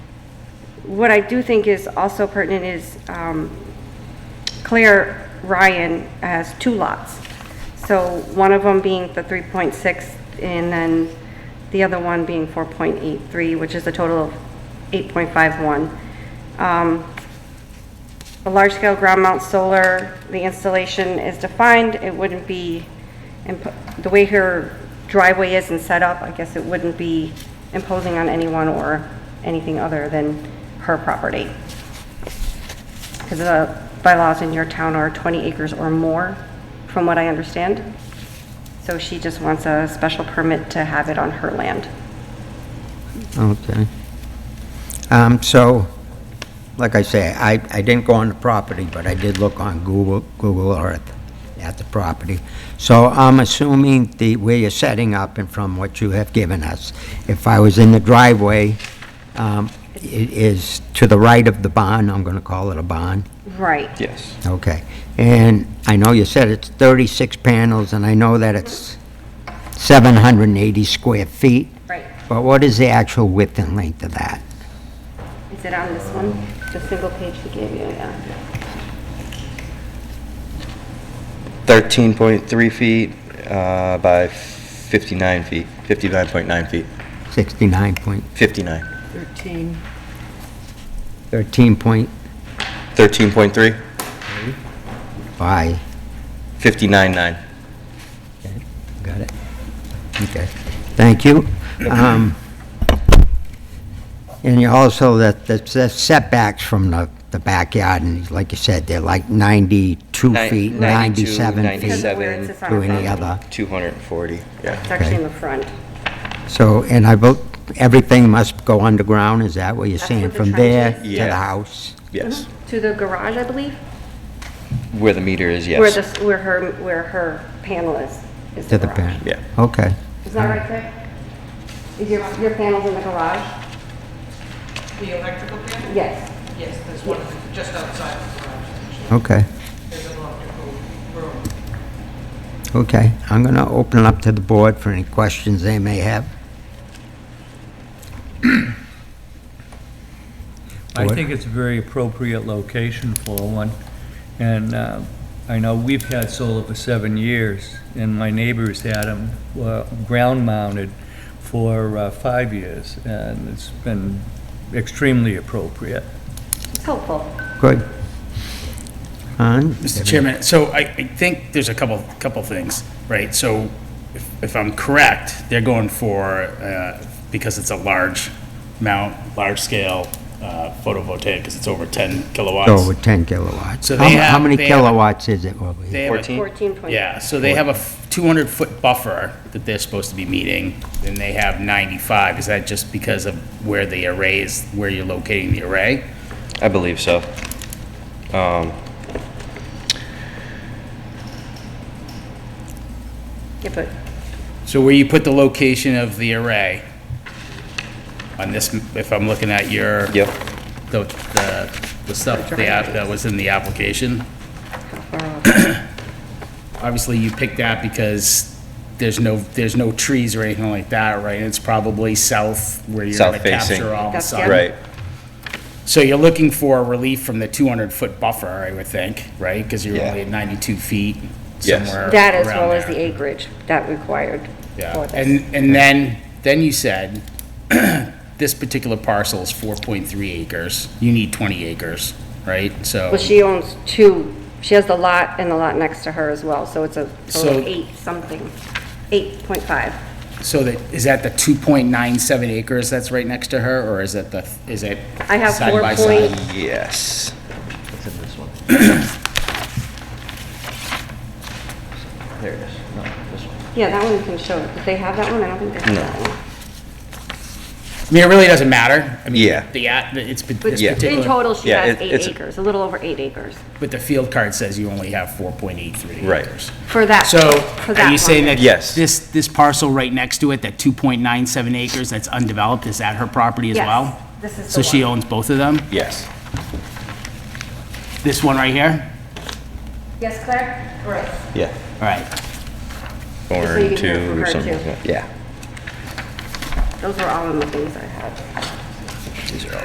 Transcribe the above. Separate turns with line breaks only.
What I do think is also pertinent is um, Claire Ryan has two lots. So one of them being the 3.6 and then the other one being 4.83, which is a total of 8.51. Um, a large-scale ground mount solar, the installation is defined, it wouldn't be, imp- the way her driveway is and set up, I guess it wouldn't be imposing on anyone or anything other than her property. Because the bylaws in your town are 20 acres or more, from what I understand. So she just wants a special permit to have it on her land.
Okay. Um, so, like I say, I, I didn't go on the property, but I did look on Google, Google Earth at the property. So I'm assuming the, where you're setting up and from what you have given us, if I was in the driveway, um, it is to the right of the barn, I'm gonna call it a barn.
Right.
Yes.
Okay. And I know you said it's 36 panels, and I know that it's 780 square feet.
Right.
But what is the actual width and length of that?
Is it on this one? The single page she gave you, yeah.
13.3 feet uh, by 59 feet, 59.9 feet,
69 point,
59.
13.
13 point
13.3,
by,
59.9.
got it? Okay, thank you. Um, And you also, that the the setbacks from the the backyard, and like you said, they're like 92
Nine-
feet,
92,
97
Because
feet
of where it sits on
to
her
any
property.
other.
240, yeah.
It's actually in
Okay.
the front.
So, and I vote, everything must go underground, is that what you're
That's
saying?
what the
From there
trench
to
is.
the
Yeah.
house?
Yes.
To the garage, I believe?
Where the meter is,
Where
yes.
this, where her, where her panel is, is
To
the
the
garage.
parent?
Yeah.
Okay.
Is that right, Claire? Is your, your panel's in the garage?
The electrical panel?
Yes.
Yes, there's one just outside the garage, actually.
Okay,
There's an electrical room.
okay. I'm going to open it up to the board for any questions they may have.
I
What?
think it's a very appropriate location for one. And uh, I know we've had solar for seven years, and my neighbors had them ground mounted for uh, five years, and it's been extremely appropriate.
It's helpful.
Good. Hans?
Mr. Chairman, so I, I think there's a couple, couple things, right? So if, if I'm correct, they're going for, uh, because it's a large mount, large scale, uh, photovoltaic, because it's over 10 kilowatts.
So with 10 kilowatts.
So
How
they
mu- How
have-
many
they have-
kilowatts is it? over here?
They have a-
14?
Fourteen point.
Mm. Yeah, so they have a 200-foot buffer that they're supposed to be meeting, and they have 95. Is that just because of where the array is, where you're locating the array?
I believe so. Um,
Yeah, but
So where you put the location of the array on this, if I'm looking at your.
Yep.
The, the, the stuff the app- that was in the application. Obviously, you picked that because there's no, there's no trees or anything like that, right? It's probably south where you're gonna
South facing.
capture all the
That's-
sun.
yeah.
Right.
So you're looking for relief from the 200-foot buffer, I would think, right? Because you're
Yeah.
only at 92 feet
Yes.
somewhere around
that as well as
there.
the acreage that required for
Yeah,
this.
and, and then, then you said, this particular parcel is 4.3 acres, you need 20 acres, right? So,
Well, she owns two, she has the lot and the lot next to her as well, so it's a total of
So-
eight something, eight point five.
so that, is that the 2.97 acres that's right next to her, or is that the, is it
I have
side
four
by
point,
side?
Yes. It's in this one. There it is. No, this one.
yeah, that one you can show, did they have that one? I don't think they have
No.
that one.
I mean, it really doesn't matter. I mean,
Yeah.
The, at- the- it's,
But
this
Yeah.
in
particular,
total, she
Yeah,
has
it-
eight
it's-
acres, a little over eight acres,
but the field card says you only have 4.83
Right.
acres.
for that,
So,
for that
are you saying
one.
that?
Yes.
This, this parcel right next to it, that 2.97 acres that's undeveloped, is that her property as
Yes,
well?
this is
So
the
she
one.
owns both of them?
Yes.
This one right here?
Yes, Claire? Right.
Yeah.
All right.
Or
you can hear from
two
her,
or something.
too.
like that. Yeah.
Those are all of the things I had.
These are all.